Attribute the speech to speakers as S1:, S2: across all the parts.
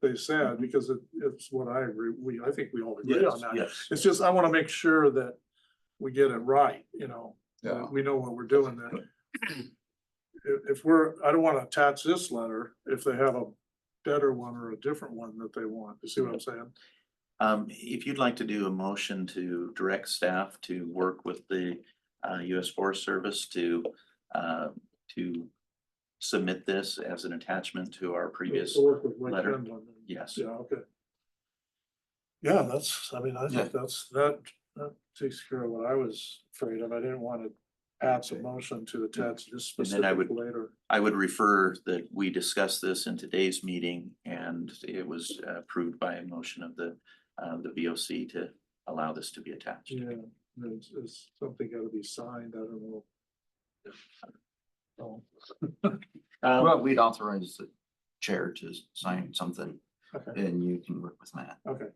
S1: they said, because it, it's what I agree, we, I think we all agree on
S2: Yes,
S1: that.
S2: yes.
S1: It's just, I wanna make sure that we get it right, you know,
S3: Yeah,
S1: that we know what we're doing there. If, if we're, I don't wanna attach this letter if they have a better one or a different one that they want, you see what I'm saying?
S2: Um, if you'd like to do a motion to direct staff to work with the uh US Forest Service to uh to submit this as an attachment to our previous,
S1: To work with Lake
S2: letter.
S1: Finland.
S2: yes.
S1: Yeah, okay. Yeah, that's, I mean, I
S3: Yeah.
S1: think that's, that, that takes care of what I was afraid of. I didn't wanna add some motion to attach this
S2: And then I
S1: specific
S2: would-
S1: later.
S2: I would refer that we discussed this in today's meeting and it was uh, approved by a motion of the uh the VOC to allow this to be attached.
S1: Yeah, there's, there's something gotta be signed, I don't know. Oh,
S2: Um,
S4: Well, we'd authorize the chair to sign something
S1: okay,
S4: and you can work with Matt.
S1: okay,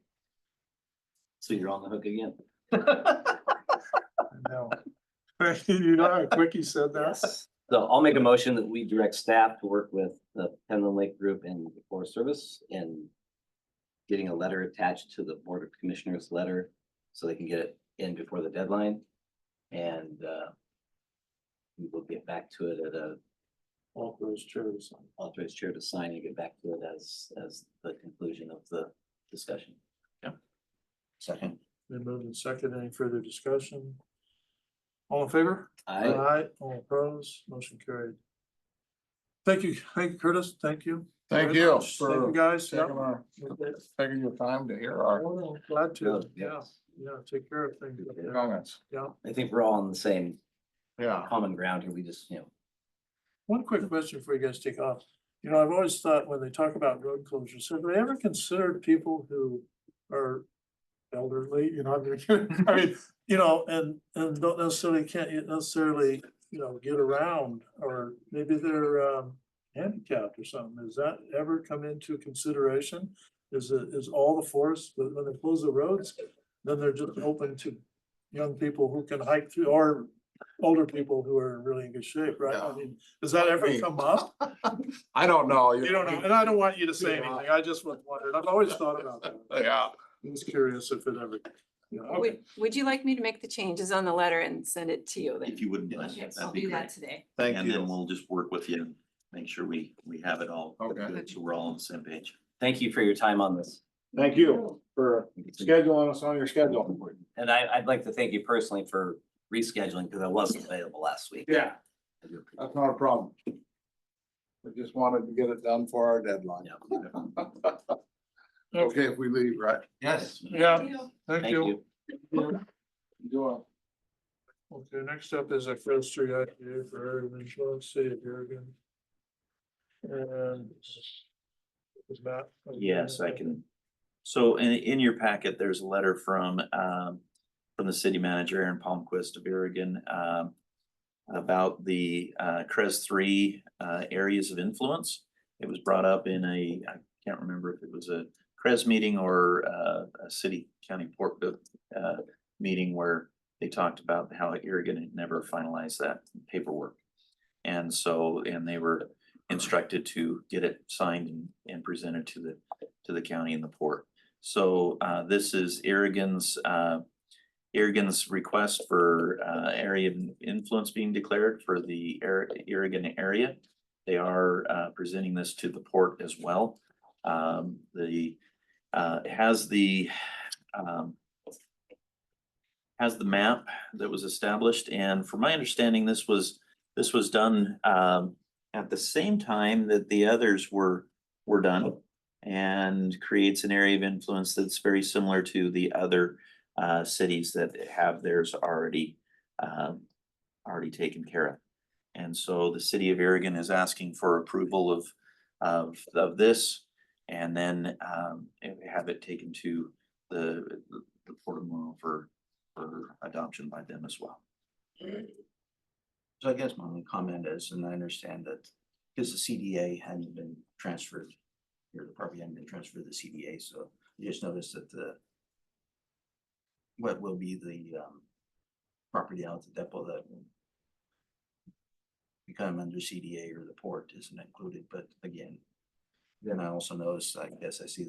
S5: So you're on the hook again.
S1: I know. You know how quick he said that?
S5: So I'll make a motion that we direct staff to work with the Penland Lake Group and the Forest Service and getting a letter attached to the Board of Commissioners letter so they can get it in before the deadline. And uh we will get back to it at a
S1: All those chairs. um,
S5: authorized chair to sign and get back to it as as the conclusion of the discussion.
S4: Second.
S1: Then moved and second, any further discussion? All in favor? Uh,
S5: I,
S1: all opposed, motion carried. Thank you, thank you Curtis, thank you.
S3: thank
S1: very
S3: you
S1: much. Thank you
S3: for
S1: guys.
S3: taking
S1: Yep.
S3: our, taking your time to hear our
S1: Well, Glad to, yeah,
S5: yes.
S1: yeah, take care of things. up there.
S3: comments.
S1: Yeah,
S5: I think we're all on the same
S3: Yeah,
S5: common ground here. We just, you know,
S1: one quick question before you guys take off. You know, I've always thought when they talk about road closures, have they ever considered people who are elderly, you know, I mean, I mean, you know, and, and don't necessarily, can't necessarily, you know, get around, or maybe they're, um, handicapped or something, does that ever come into consideration? Is it, is all the forest, when when they close the roads, then they're just open to young people who can hike through, or older people who are in really in good shape, right? I
S3: Yeah.
S1: mean, does that ever
S3: Hey.
S1: come up?
S3: I don't know.
S1: You don't know, and I don't want you to say
S3: Yeah.
S1: anything, I just was wondering, I've always thought about that. I
S3: Yeah,
S1: was curious if it ever, you know, okay.
S6: Would, would you like me to make the changes on the letter and send it to you then?
S2: If you wouldn't mind,
S6: Yes,
S2: that'd
S6: I'll
S2: be
S6: do that
S2: great.
S6: today.
S3: thank
S2: And then
S3: you.
S2: we'll just work with you, and make sure we we have it all.
S3: Okay.
S2: good, So we're all on the same page.
S5: thank you for your time on this.
S3: Thank you for
S5: It's been
S3: scheduling us on your schedule.
S5: And I, I'd like to thank you personally for rescheduling because I wasn't available last week.
S3: Yeah,
S5: I do appreciate
S3: that's not a problem. We just wanted to get it done for our deadline.
S5: it.
S3: Okay, if we leave, right?
S4: Yes.
S1: yeah,
S5: Thank you.
S3: Enjoy.
S1: Okay, next up is a first three IPA for Irving Insurance, City of Oregon. And. Is Matt? uh,
S2: Yes, I can. So in, in your packet, there's a letter from, um, from the city manager Aaron Palmquist of Oregon, um, about the, uh, CREZ three, uh, areas of influence. It was brought up in a, I can't remember if it was a CREZ meeting or, uh, a city county port, uh, meeting where they talked about how Oregon had never finalized that paperwork. And so, and they were instructed to get it signed and, and presented to the to the county and the port. So uh this is Aragon's uh Aragon's request for uh area of influence being declared for the Ar- Aragon area. They are uh presenting this to the port as well. Um the uh it has the um has the map that was established and from my understanding, this was this was done um at the same time that the others were were done and creates an area of influence that's very similar to the other uh cities that have theirs already um already taken care of. And so the city of Aragon is asking for approval of of of this and then um and have it taken to the the Port of Monroe for for adoption by them as well.
S4: So I guess my only comment is, and I understand that, because the CDA hadn't been transferred, your property hadn't been transferred to the CDA, so I just noticed that the what will be the um property out at the depot that will become under CDA or the port isn't included, but again,
S2: Then I also noticed, I guess I see